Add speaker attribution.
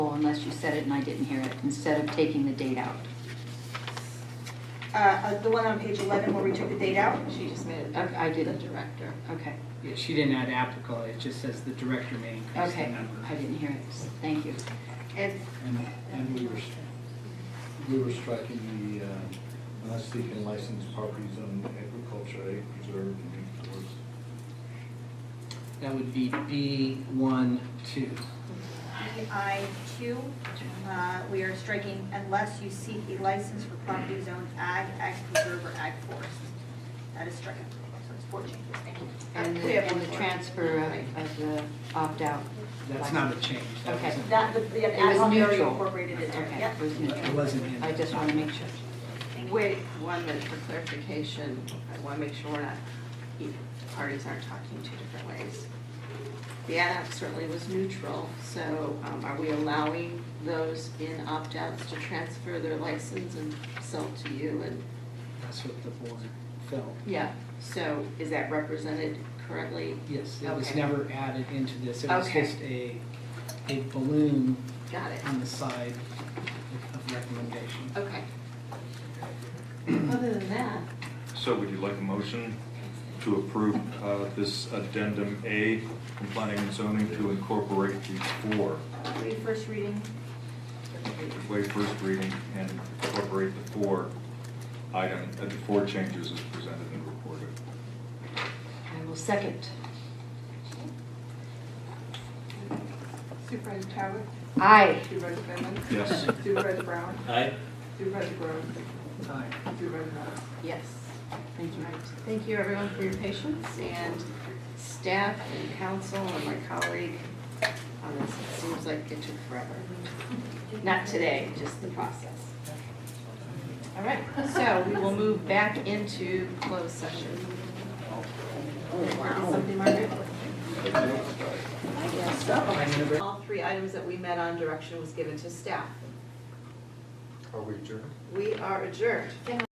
Speaker 1: you said it and I didn't hear it, instead of taking the date out.
Speaker 2: Uh, uh, the one on page 11 where we took the date out?
Speaker 3: She just made it
Speaker 1: Okay, I
Speaker 3: the
Speaker 1: did it.
Speaker 3: director.
Speaker 1: Okay,
Speaker 4: Yeah, she didn't add applicable, it just says the director may increase the
Speaker 1: okay,
Speaker 4: number.
Speaker 1: I didn't hear it, thank you.
Speaker 2: And uh,
Speaker 5: And, and we were, s- we were striking the, uh, not seeking licensed properties on agriculture, ag preserve and forest.
Speaker 4: That would be B one, two.
Speaker 2: EIQ, uh, we are striking unless you seek a license for property zone ag, ag preserve, or ag forest. That is stricken. So it's four changes, thank you.
Speaker 1: And
Speaker 2: We
Speaker 1: the,
Speaker 2: have
Speaker 1: and
Speaker 2: one
Speaker 1: the
Speaker 2: more.
Speaker 1: transfer of, of the opt-out.
Speaker 4: That's not a change. That
Speaker 1: Okay.
Speaker 4: wasn't-
Speaker 2: That, the, the
Speaker 1: It was
Speaker 2: ad hoc area
Speaker 1: neutral.
Speaker 2: incorporated in there,
Speaker 1: Okay,
Speaker 2: yep.
Speaker 1: it was
Speaker 4: It
Speaker 1: neutral.
Speaker 4: wasn't in.
Speaker 1: I just want to make sure.
Speaker 3: Wait, one minute for clarification. I want to make sure we're not, either parties aren't talking two different ways. The ad hoc certainly was neutral, so um, are we allowing those in opt-outs to transfer their license and sell to you? And
Speaker 4: That's what the board felt.
Speaker 3: Yeah, so is that represented correctly?
Speaker 4: Yes, it was
Speaker 3: Okay.
Speaker 4: never added into this. It was
Speaker 3: Okay.
Speaker 4: just a, a balloon
Speaker 3: Got it.
Speaker 4: on the side of recommendation.
Speaker 3: Okay. Other than that,
Speaker 6: So would you like a motion to approve uh, this addendum A from planning and zoning to incorporate these four?
Speaker 2: Read first reading.
Speaker 6: Waive first reading and incorporate the four item, uh, the four changes as presented and reported.
Speaker 1: I will second.
Speaker 7: Supervisor Howard,
Speaker 1: Aye.
Speaker 7: Supervisor Finley,
Speaker 6: Yes.
Speaker 7: Supervisor Brown,
Speaker 8: Aye.
Speaker 7: Supervisor Groves,
Speaker 4: Aye.
Speaker 7: Supervisor Howard.
Speaker 3: yes.
Speaker 1: Thank you.
Speaker 3: Right. Thank you, everyone, for your patience and staff and council and my colleague on this. It seems like it took forever. Not today, just the process. All right, so we will move back into closed session. Something, Margaret? I guess so. All three items that we met on direction was given to staff.
Speaker 5: Are we adjourned?
Speaker 3: We are adjourned.